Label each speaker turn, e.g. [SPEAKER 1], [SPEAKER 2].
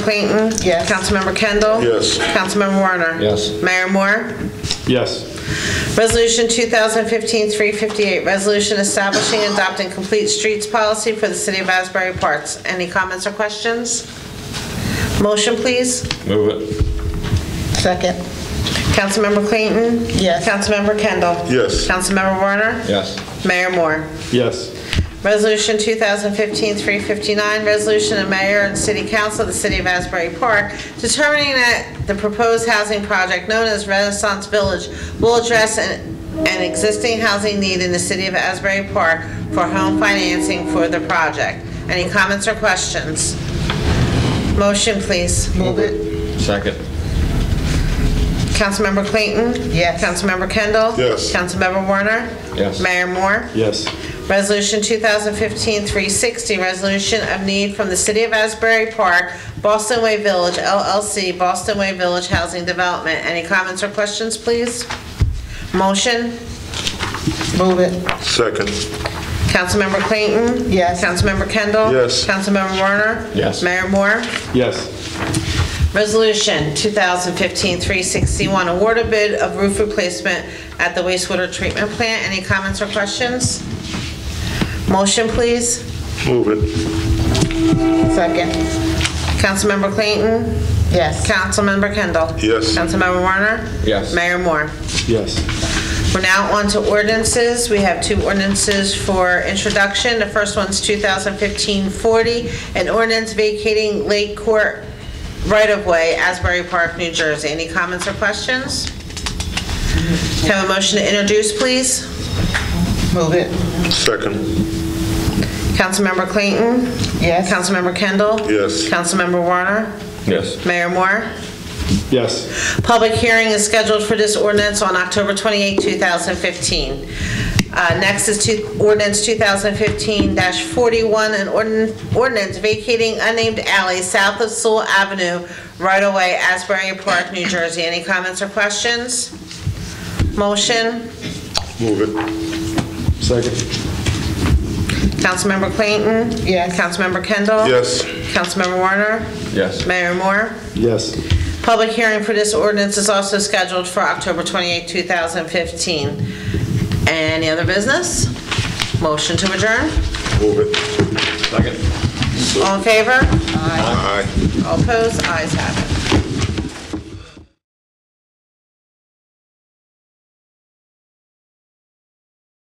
[SPEAKER 1] Clayton?
[SPEAKER 2] Yes.
[SPEAKER 1] Councilmember Kendall?
[SPEAKER 3] Yes.
[SPEAKER 1] Councilmember Warner?
[SPEAKER 4] Yes.
[SPEAKER 1] Mayor Moore?
[SPEAKER 4] Yes.
[SPEAKER 1] Resolution 2015-358, resolution establishing and adopting complete streets policy for the city of Asbury Parks. Any comments or questions? Motion, please.
[SPEAKER 4] Move it.
[SPEAKER 2] Second.
[SPEAKER 1] Councilmember Clayton?
[SPEAKER 2] Yes.
[SPEAKER 1] Councilmember Kendall?
[SPEAKER 3] Yes.
[SPEAKER 1] Councilmember Warner?
[SPEAKER 4] Yes.
[SPEAKER 1] Mayor Moore?
[SPEAKER 4] Yes.
[SPEAKER 1] Resolution 2015-359, resolution of mayor and city council of the city of Asbury Park determining that the proposed housing project known as Renaissance Village will address an an existing housing need in the city of Asbury Park for home financing for the project. Any comments or questions? Motion, please.
[SPEAKER 2] Move it.
[SPEAKER 4] Second.
[SPEAKER 1] Councilmember Clayton?
[SPEAKER 2] Yes.
[SPEAKER 1] Councilmember Kendall?
[SPEAKER 3] Yes.
[SPEAKER 1] Councilmember Warner?
[SPEAKER 4] Yes.
[SPEAKER 1] Mayor Moore?
[SPEAKER 4] Yes.
[SPEAKER 1] Resolution 2015-360, resolution of need from the City of Asbury Park, Boston Way Village LLC, Boston Way Village Housing Development. Any comments or questions, please? Motion?
[SPEAKER 2] Move it.
[SPEAKER 3] Second.
[SPEAKER 1] Councilmember Clayton?
[SPEAKER 2] Yes.
[SPEAKER 1] Councilmember Kendall?
[SPEAKER 3] Yes.
[SPEAKER 1] Councilmember Warner?
[SPEAKER 4] Yes.
[SPEAKER 1] Mayor Moore?
[SPEAKER 4] Yes.
[SPEAKER 1] Resolution 2015-361, award a bid of roof replacement at the wastewater treatment plant. Any comments or questions? Motion, please?
[SPEAKER 3] Move it.
[SPEAKER 2] Second.
[SPEAKER 1] Councilmember Clayton?
[SPEAKER 2] Yes.
[SPEAKER 1] Councilmember Kendall?
[SPEAKER 3] Yes.
[SPEAKER 1] Councilmember Warner?
[SPEAKER 4] Yes.
[SPEAKER 1] Mayor Moore?
[SPEAKER 4] Yes.
[SPEAKER 1] We're now on to ordinances. We have two ordinances for introduction. The first one's 2015-40, an ordinance vacating Lake Court right-of-way, Asbury Park, New Jersey. Any comments or questions? Can I Have a motion to introduce, please.
[SPEAKER 2] Move it.
[SPEAKER 3] Second.
[SPEAKER 1] Councilmember Clayton?
[SPEAKER 2] Yes.
[SPEAKER 1] Councilmember Kendall?
[SPEAKER 3] Yes.
[SPEAKER 1] Councilmember Warner?
[SPEAKER 4] Yes.
[SPEAKER 1] Mayor Moore?
[SPEAKER 4] Yes.
[SPEAKER 1] Public hearing is scheduled for this ordinance on October 28, 2015. Uh, Next is two- ordinance 2015-41, an ordin- ordinance vacating unnamed alley south of Sewell Avenue, right away Asbury Park, New Jersey. Any comments or questions? Motion?
[SPEAKER 3] Move it.
[SPEAKER 4] Second.
[SPEAKER 1] Councilmember Clayton?
[SPEAKER 2] Yes.
[SPEAKER 1] Councilmember Kendall?
[SPEAKER 3] Yes.
[SPEAKER 1] Councilmember Warner?
[SPEAKER 4] Yes.
[SPEAKER 1] Mayor Moore?
[SPEAKER 4] Yes.
[SPEAKER 1] Public hearing for this ordinance is also scheduled for October 28, 2015. Any other business? Motion to adjourn?
[SPEAKER 3] Move it.
[SPEAKER 4] Second.
[SPEAKER 1] All in favor?
[SPEAKER 3] Aye.
[SPEAKER 1] All opposed? Ayes have it.